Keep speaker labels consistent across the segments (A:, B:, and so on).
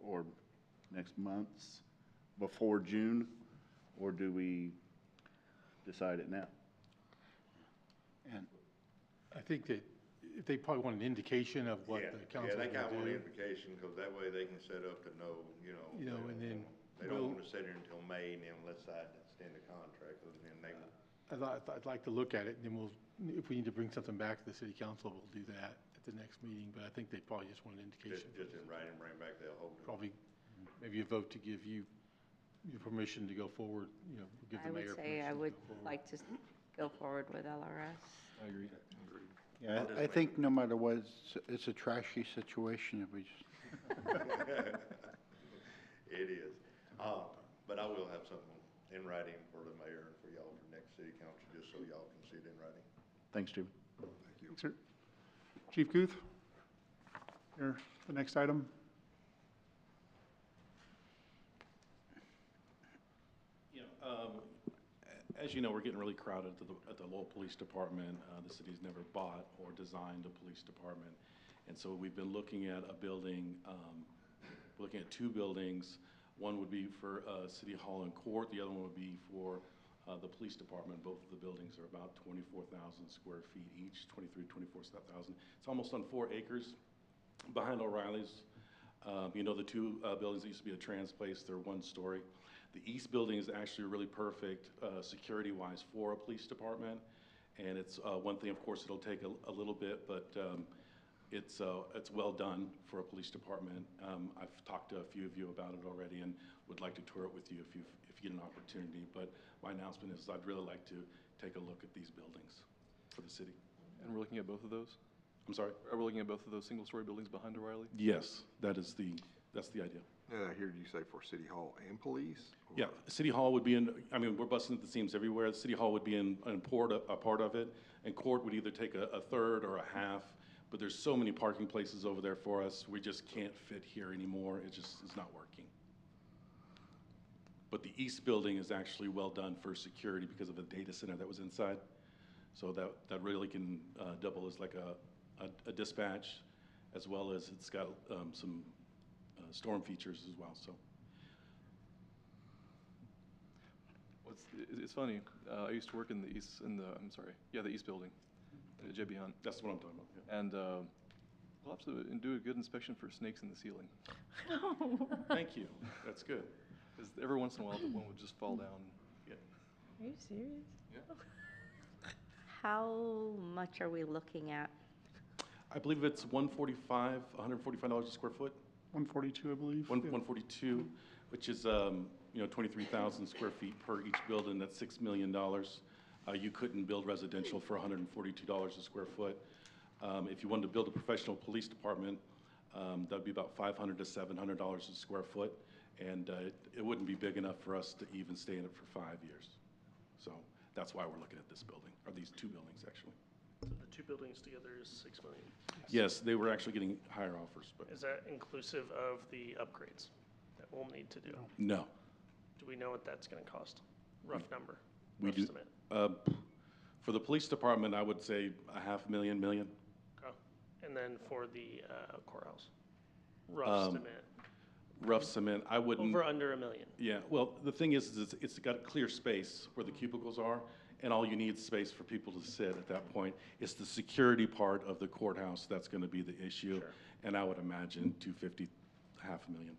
A: or next month's, before June? Or do we decide it now?
B: And I think that if they probably want an indication of what
C: Yeah,
B: the council
C: Yeah, they kind of
B: will
C: want
B: do.
C: indication, because that way they can set up to know, you know.
B: You know,
C: they
B: and
C: don't-
B: then
C: They don't
B: we'll-
C: want to sit here until May, and then let's decide to extend the contract, and then they,
B: Uh, I'd, li- I'd like to look at it, and then we'll, if we need to bring something back to the city council, we'll do that at the next meeting, but I think they probably just want an indication.
C: just, just in writing, bring back, they'll hold it.
B: Probably, maybe a vote to give you, your permission to go forward, you know, give
D: I
B: the mayor
D: would say
B: permission
D: I
B: to
D: would
B: go forward.
D: like to s- go forward with LRS.
E: Yeah, I I think no matter what, it's, it's a trashy situation if we just
C: It is. Uh, But I will have something in writing for the mayor and for y'all for next city council, just so y'all can see it in writing.
A: Thanks, Jim.
F: Sir. Chief Guth? Here, the next item.
G: Yeah, um, a- as you know, we're getting really crowded at the, at the Lowell Police Department. Uh, the city's never bought or designed a police department. And so we've been looking at a building, um, we're looking at two buildings. One would be for, uh, City Hall and Court, the other one would be for, uh, the police department. Both of the buildings are about twenty-four thousand square feet each, 23, 24 thousand. It's almost on four acres behind O'Reilly's. Um, You know, the two uh, buildings that used to be a trans place, they're one story. The east building is actually really perfect, uh, security-wise, for a police department. And it's uh, one thing, of course, it'll take a- a little bit, but um, it's, uh, it's well done for a police department. Um, I've talked to a few of you about it already and would like to tour it with you if you, if you get an opportunity. But my announcement is I'd really like to take a look at these buildings for the city.
H: And we're looking at both of those?
G: I'm sorry?
H: Are we looking at both of those single-story buildings behind O'Reilly?
G: Yes, that is the, that's the idea.
I: Uh, here, you say for city hall and police? or-
G: Yeah, City Hall would be in, I mean, we're busting at the seams everywhere. The City Hall would be in, in port, a part of it, and court would either take a, a third or a half. But there's so many parking places over there for us, we just can't fit here anymore. It just is not working. But the east building is actually well done for security because of the data center that was inside. So that, that really can uh, double as like a, a- a dispatch, as well as it's got um, some uh, storm features as well, so.
H: What's, i- it's funny, uh, I used to work in the east, in the, I'm sorry, yeah, the east building, at JB Hunt.
G: That's what I'm talking about, yeah.
H: And, uh, we'll have to do a good inspection for snakes in the ceiling.
G: Thank you. That's good.
H: Because every once in a while, the one would just fall down.
D: Are you serious? How much are we looking at?
G: I believe it's 145, $145 a square foot,
F: 142, I believe.
G: one-
F: Yeah.
G: 142, which is, um, you know, 23,000 square feet per each building, that's $6 million. Uh, You couldn't build residential for $142 a square foot. Um, If you wanted to build a professional police department, um, that'd be about $500 to $700 a square foot, and uh, it- it wouldn't be big enough for us to even stay in it for five years. So that's why we're looking at this building, or these two buildings, actually.
J: So the two buildings together is six million.
G: Yes, they were actually getting higher offers, but
J: Is that inclusive of the upgrades that we'll need to do?
G: no.
J: Do we know what that's gonna cost? Rough number,
G: We
J: rough
G: do-
J: estimate.
G: Uh, For the police department, I would say a half million, million.
J: Okay. And then for the uh, courthouse, rough
G: Um,
J: estimate,
G: Rough cement, I wouldn't,
J: over under a million.
G: yeah, well, the thing is, is it's- it's got a clear space where the cubicles are, and all you need is space for people to sit at that point. It's the security part of the courthouse that's going to be the issue.
J: Sure.
G: And I would imagine 250, half a million.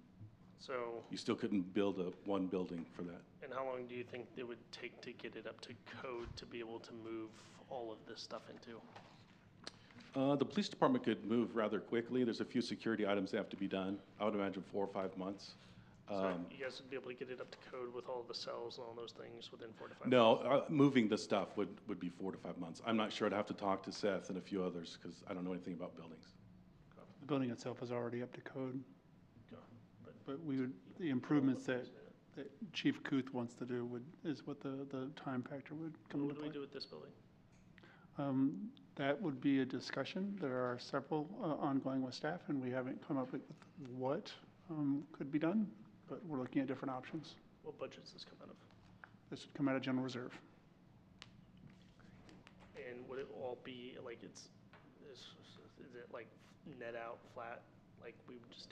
J: So,
G: You still couldn't build a, one building for that.
J: and how long do you think it would take to get it up to code to be able to move all of this stuff into?
G: Uh, The police department could move rather quickly. There's a few security items that have to be done. I would imagine four or five months.
J: So
G: Um,
J: you guys would be able to get it up to code with all the cells and all those things within four to five? months?
G: No, uh, moving the stuff would, would be four to five months. I'm not sure. I'd have to talk to Seth and a few others because I don't know anything about buildings.
F: The building itself is already up to code. But we would, the improvements that, that Chief Kuth wants to do would, is what the, the time factor would come
J: What
F: into
J: do we
F: play.
J: do with this building?
F: Um, That would be a discussion. There are several uh, ongoing with staff, and we haven't come up with what um, could be done, but we're looking at different options.
J: What budget does this come out of?
F: This would come out of general reserve.
J: And would it all be, like, it's, is, is it like net out flat, like we would just do